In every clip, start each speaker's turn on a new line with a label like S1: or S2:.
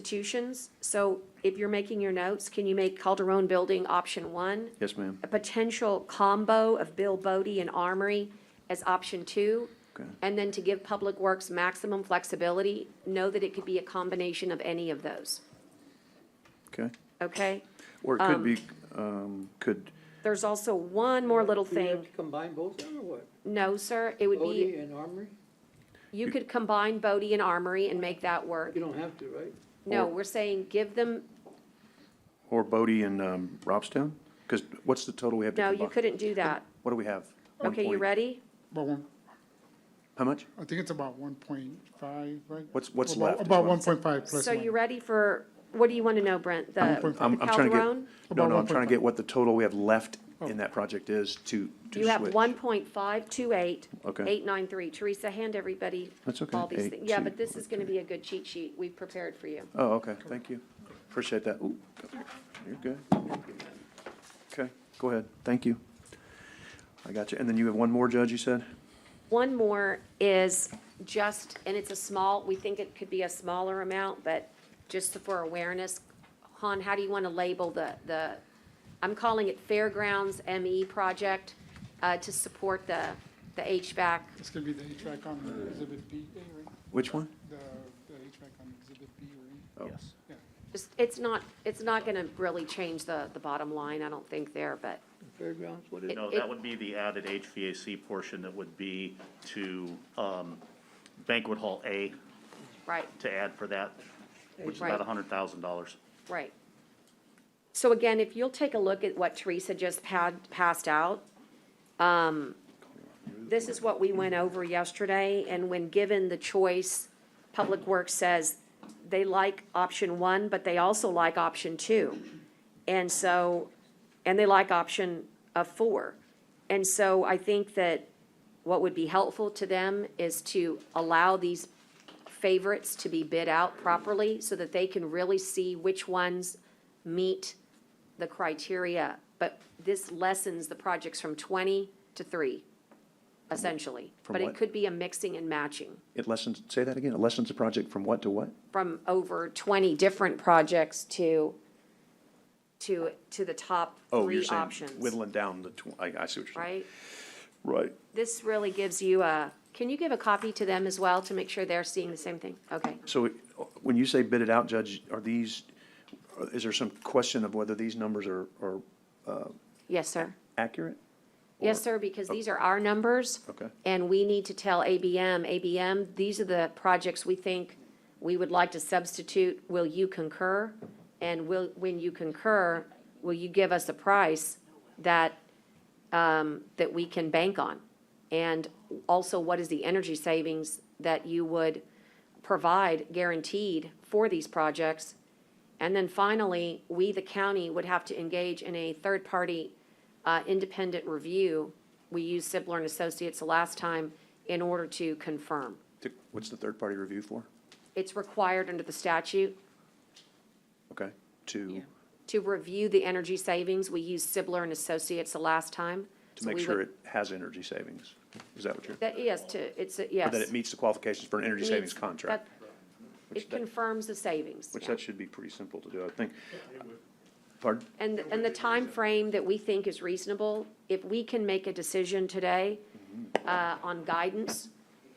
S1: substitutions. So if you're making your notes, can you make Calderon Building option one?
S2: Yes, ma'am.
S1: A potential combo of Bill Bodie and Armory as option two?
S2: Okay.
S1: And then to give Public Works maximum flexibility, know that it could be a combination of any of those,
S2: Okay.
S1: okay?
S2: Or it could be, um, could,
S1: There's also one more little
S3: Do you have
S1: thing.
S3: to Combine both of them or what?
S1: No, sir, it would
S3: Bodie
S1: be,
S3: and Armory?
S1: you could combine Bodie and Armory and make that work.
S3: You don't have to, right?
S1: No, we're saying give them,
S2: or Bodie and, um, Robstown? Because what's the total we have to
S1: no,
S2: combine?
S1: you couldn't do that.
S2: What do we have? One
S1: Okay, you
S2: point-
S1: ready?
S4: About one,
S2: How much?
S4: I think it's about one point five, right?
S2: What's- what's
S4: About-
S2: left is
S4: About
S2: what I'm-
S4: one point five plus
S1: So you
S4: one.
S1: ready for, what do you want to know, Brent? The
S4: I'm-
S1: the
S2: I'm, I'm trying to
S1: Calderon?
S2: get, no,
S4: About
S2: no, I'm trying to
S4: 1.5.
S2: get what the total we have left in that project is to, to
S1: You have
S2: switch.
S1: one point five two eight,
S2: Okay.
S1: eight nine three. Teresa, hand everybody
S2: That's okay.
S1: all these
S2: Eight,
S1: things. Yeah,
S2: two,
S1: but this is going to be a good cheat sheet we've prepared for you.
S2: Oh, okay, thank you. Appreciate that. Ooh, you're good. Okay, go ahead. Thank you. I got you. And then you have one more, Judge, you said?
S1: One more is just, and it's a small, we think it could be a smaller amount, but just for awareness, Han, how do you want to label the, the, I'm calling it Fairgrounds ME project, uh, to support the, the HVAC
S4: It's gonna be the HVAC on exhibit B, eh, right?
S2: Which one?
S4: The, the HVAC on exhibit B, right?
S5: Oh.
S2: Yes.
S4: Yeah.
S1: Just, it's not, it's not gonna really change the, the bottom line, I don't think there, but
S3: Fairgrounds, what is
S1: It-
S3: it?
S5: No, that would be the added HVAC portion that would be to um, banquet hall A
S1: Right,
S5: to add for that, which is
S1: Right.
S5: about $100,000.
S1: right. So again, if you'll take a look at what Teresa just had, passed out, um, this is what we went over yesterday, and when given the choice, Public Works says they like option one, but they also like option two. And so, and they like option of four. And so I think that what would be helpful to them is to allow these favorites to be bid out properly so that they can really see which ones meet the criteria. But this lessens the projects from twenty to three, essentially.
S2: From
S1: But it
S2: what?
S1: could be a mixing and matching
S2: It lessens, say that again, it lessens the project from what to what?
S1: from over twenty different projects to, to, to the top
S2: Oh, you're
S1: three
S2: saying
S1: options,
S2: whittling down the, tw- I, I see what you're saying.
S1: right?
S2: Right.
S1: This really gives you a, can you give a copy to them as well to make sure they're seeing the same thing? Okay.
S2: So uh, when you say bid it out, Judge, are these, is there some question of whether these numbers are, are
S1: Yes, sir.
S2: accurate?
S1: Yes, sir, because these are our numbers.
S2: Okay.
S1: And we need to tell ABM, ABM, these are the projects we think we would like to substitute. Will you concur? And will, when you concur, will you give us a price that, um, that we can bank on? And also, what is the energy savings that you would provide guaranteed for these projects? And then finally, we, the county, would have to engage in a third-party uh, independent review. We used Sibler and Associates the last time in order to confirm.
S2: To- What's the third-party review for?
S1: It's required under the statute
S2: Okay, to,
S1: to review the energy savings. We used Sibler and Associates the last time.
S2: to make sure it has energy savings? Is that what you're,
S1: That, yes, to, it's, a-
S2: or
S1: yes.
S2: that it meets the qualifications for an energy savings
S1: Meets-
S2: contract?
S1: that-
S2: which
S1: It
S2: that-
S1: confirms the savings.
S2: Which
S1: yeah.
S2: that should be pretty simple to do, I think. Pardon?
S1: And, and the time frame that we think is reasonable, if we can make a decision today uh, on guidance,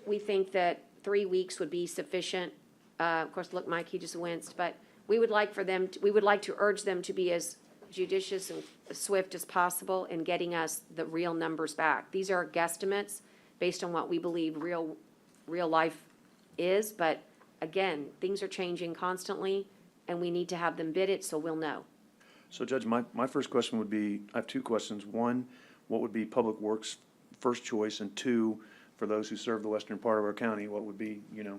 S1: we think that three weeks would be sufficient. Uh, Of course, look, Mike, he just winced, but we would like for them, to- we would like to urge them to be as judicious and swift as possible in getting us the real numbers back. These are guesstimates based on what we believe real, real life is, but again, things are changing constantly, and we need to have them bid it, so we'll know.
S2: So Judge, my, my first question would be, I have two questions. One, what would be Public Works' first choice? And two, for those who serve the western part of our county, what would be, you know,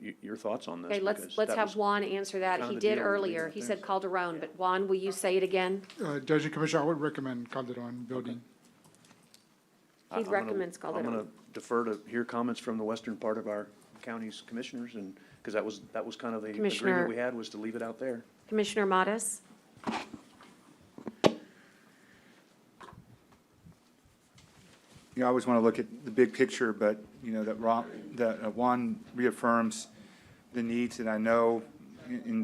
S2: y- your thoughts on this?
S1: Okay, let's,
S2: Because
S1: let's
S2: that
S1: have
S2: was-
S1: Juan answer that.
S2: kind
S1: He
S2: of the
S1: did
S2: deal when we
S1: earlier.
S2: got
S1: He
S2: there.
S1: said Calderon, but Juan, will you say it again?
S4: Uh, Judge and Commissioner, I would recommend Calderon Building.
S2: I-
S1: He
S2: I'm gonna-
S1: recommends
S2: I'm
S1: Calderon.
S2: going to defer to hear comments from the western part of our county's commissioners and, because that was, that was kind of the
S1: Commissioner-
S2: agreement we had was to leave it out there.
S1: Commissioner Modis?
S6: you know, I always want to look at the big picture, but, you know, that Ron, that uh, Juan reaffirms the needs, and I know in- in